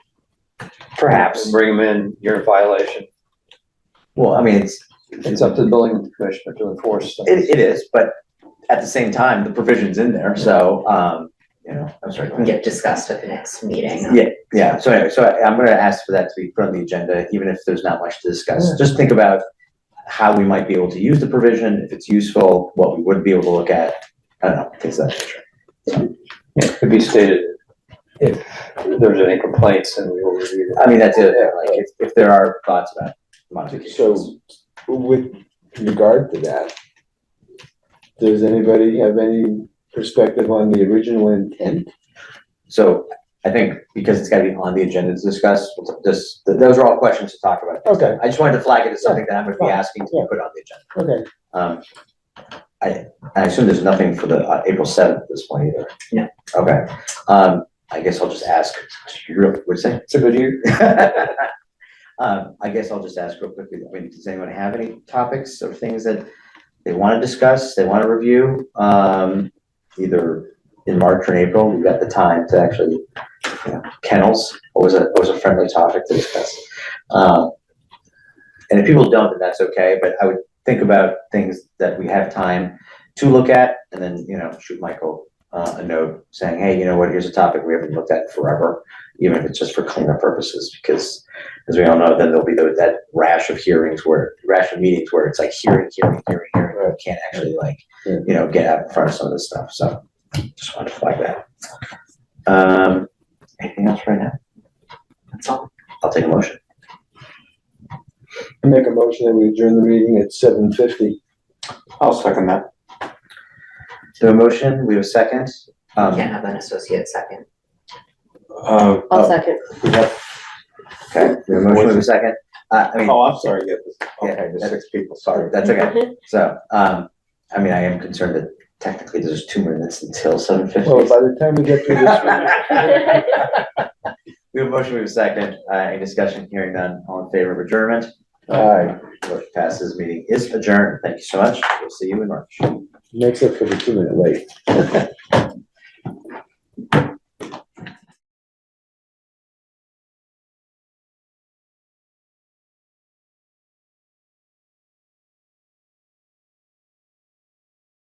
Perhaps. and bring them in, you're in violation. Well, I mean, it's, It's up to the building commissioner to enforce. them. it, it is, but at the same time, the provision's in there, so, um, you know, I'm sorry. go ahead. get discussed at the next meeting. Yeah, yeah, so anyway, so I- I'm gonna ask for that to be put on the agenda, even if there's not much to discuss, just think about how we might be able to use the provision, if it's useful, what we would be able to look at, I don't know, uh, things like that. It could be stated if there's any complaints and we will review I mean, that's it, like, if, if there are thoughts about modifications. So with regard to that, does anybody have any perspective on the original intent? So I think because it's gotta be on the agenda to discuss, we'll t- just, th- those are all questions to talk about. Okay, I just wanted to flag it as something that I'm gonna be asking to be Yeah. put on the agenda. okay. Um, I, I assume there's nothing for the uh, April seventh at this point either? No. Okay, um, I guess I'll just ask, what's that? It's a good year. Um, I guess I'll just ask real quickly, I mean, does anyone have any topics or things that they wanna discuss, they wanna review? Um, either in March or in April, we've got the time to actually, you know, kennels, always a, always a friendly topic to discuss. Um, and if people don't, then that's okay, but I would think about things that we have time to look at, and then, you know, shoot Michael uh, a note saying, hey, you know what, here's a topic we haven't looked at in forever, even if it's just for cleanup purposes, because as we all know, then there'll be tho- that rash of hearings where, rash of meetings where it's like hearing, hearing, hearing, hearing, you can't actually like, Yeah. you know, get out in front of some of this stuff, so just wanted to flag that. Um, anything else right now? That's all. I'll take a motion. I Make a motion that we adjourn the meeting at seven fifty. I'll second that. So a motion, we have a second. Um, Can't have an associate second. Oh, I'll second. Okay, we have a motion, we have a second. Uh, I mean, oh, I'm sorry, yeah, okay, the six people, sorry. That's okay. So, um, I mean, I am concerned that technically there's two minutes until seven fifty. Well, by the time we get through this one, We have a motion, we have a second, uh, any discussion, hearing none, all in favor of adjournment? aye, Motion passes, meeting is adjourned, thank you so much, we'll see you in March. makes up for the two minute wait.